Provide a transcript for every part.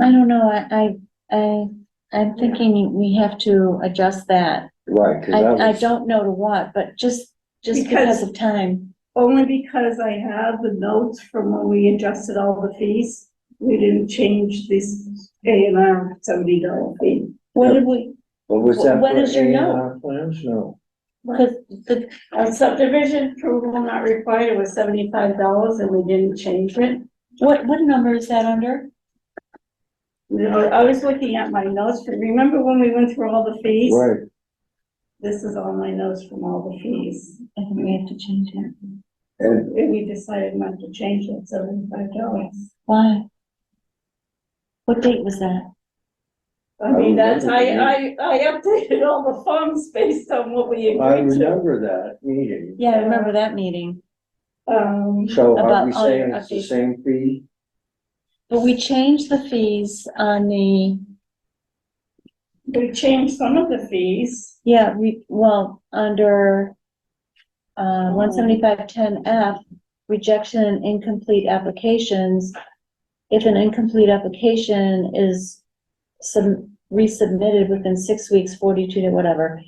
I don't know, I, I, I, I'm thinking we have to adjust that. Right, cause I, that I was, don't know to what, but just, just Because- because of time. Only because I have the notes from when we adjusted all the fees. We didn't change this A and R seventy dollar fee. What did we, what was that? What for is your note? A&R Plans, no, because the, Our subdivision approval not required was seventy-five dollars and we didn't change it. what, what number is that under? You know, I was looking at my notes, but remember when we went through all the fees? right, This is all my notes from all the fees. I think we have to change it. and, And we decided not to change it, seventy-five dollars. Why? What date was that? I mean, that's, I I, remember I, I updated all the forms based on what we I agreed to. remember that meeting, Yeah, I remember that meeting, Um, so are About we all saying your it's the updates. same fee? but we changed the fees on the, we changed some of the fees. yeah, we, well, under uh, one seventy-five ten F, rejection and incomplete applications. If an incomplete application is sub- resubmitted within six weeks, forty-two to whatever,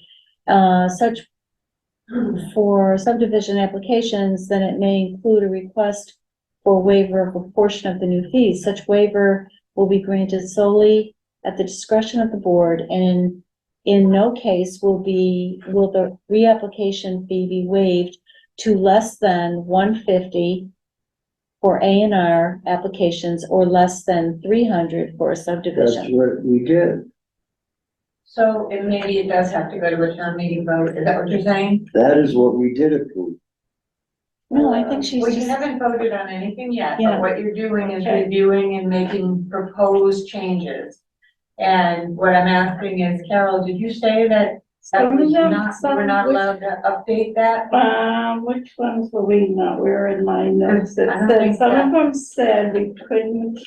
uh, such for subdivision applications, then it may include a request for waiver of a portion of the new fees. Such waiver will be granted solely at the discretion of the board and in no case will be, will the reapplication fee be waived to less than one fifty for A and R applications or less than three hundred for a That's subdivision. what we did, So it maybe it does have to go to a town meeting vote, is that what you're saying? that is what we did approve, No, I think she's Well, you just, haven't voted on anything yet, Yeah. but what you're doing is Okay. reviewing and making proposed changes. And what I'm asking is, Carol, did you say that that Some was of them- not, you were some- not allowed to update that? Um, which ones were we not, we were in my notes I that don't said, think some of that- them said we couldn't,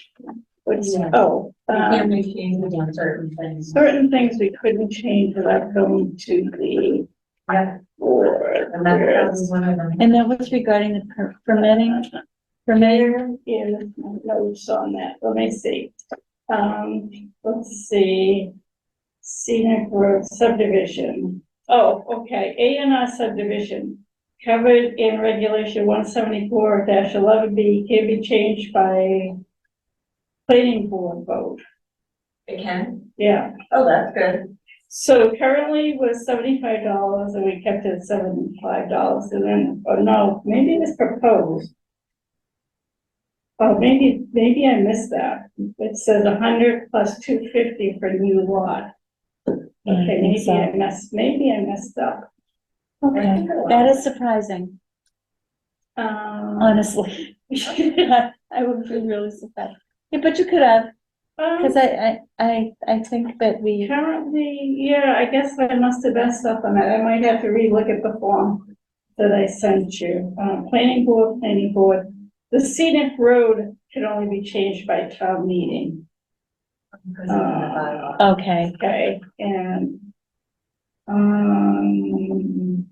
which, Yeah. oh. You can't um, make changes on certain things. Certain things we couldn't change without going to the Yeah, board. And that's probably one of them. and that was regarding the per- permitting, permitting. Yeah, that's my notes on that, let me see. Um, let's see. Scenic road subdivision. Oh, okay, A and R subdivision. Covered in regulation one seventy-four eleven B can be changed by planning board vote, It can, yeah. oh, that's good. So currently was seventy-five dollars and we kept it seventy-five dollars and then, oh no, maybe it was proposed. Oh, maybe, maybe I missed that. It says a hundred plus two fifty for new lot. Yeah, Mm, I Okay, think maybe so. I missed, maybe I messed up. Okay, that is surprising, Um, honestly. I would be really surprised. Yeah, but you could have, because um, I, I, I, I think that we, currently, yeah, I guess I must have messed up on that. I might have to relook at the form that I sent you. Uh, planning board, planning board. The scenic road can only be changed by town meeting, Because okay, okay, and um,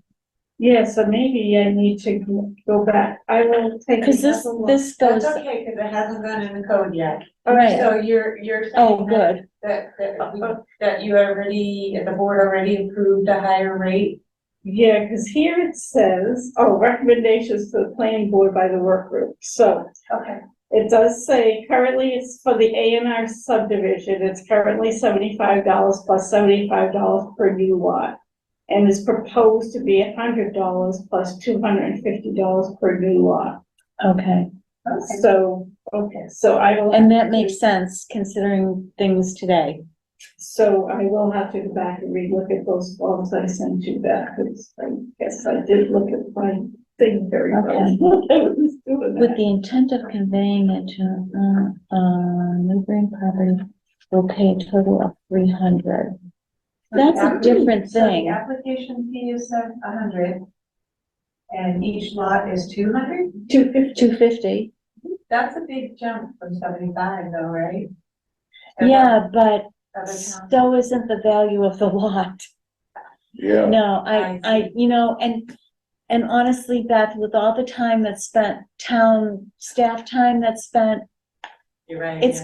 yeah, so maybe I need to go- go back. I will take. because this, another look. this goes, That's okay, because it hasn't gone in the code yet. right, So you're, you're saying oh, that- good. That, that, we- that you already, the board already approved a higher rate? Yeah, because here it says, oh, recommendations to the planning board by the work group. So Okay. It does say currently it's for the A and R subdivision, it's currently seventy-five dollars plus seventy-five dollars per new lot. And is proposed to be hundred dollars plus two hundred and fifty dollars per new lot. Okay, So, okay, so I will. and that makes sense considering things today. So I will have to go back and relook at those forms I sent you back, because I guess I did look at my thing very well. I Okay. was doing With that. the intent of conveying it to, uh, uh, neighboring property will pay a total of three hundred. That's a different So the thing. application fee is a hundred, and each lot is two hundred? Two fifty. Two fifty. That's a big jump from seventy-five though, right? And Yeah, but what other towns- so isn't the value of the lot. yeah. No, I, I I, you know, and, and honestly, Beth, with all the time that's spent, town staff time that's spent, You're right. it's yeah.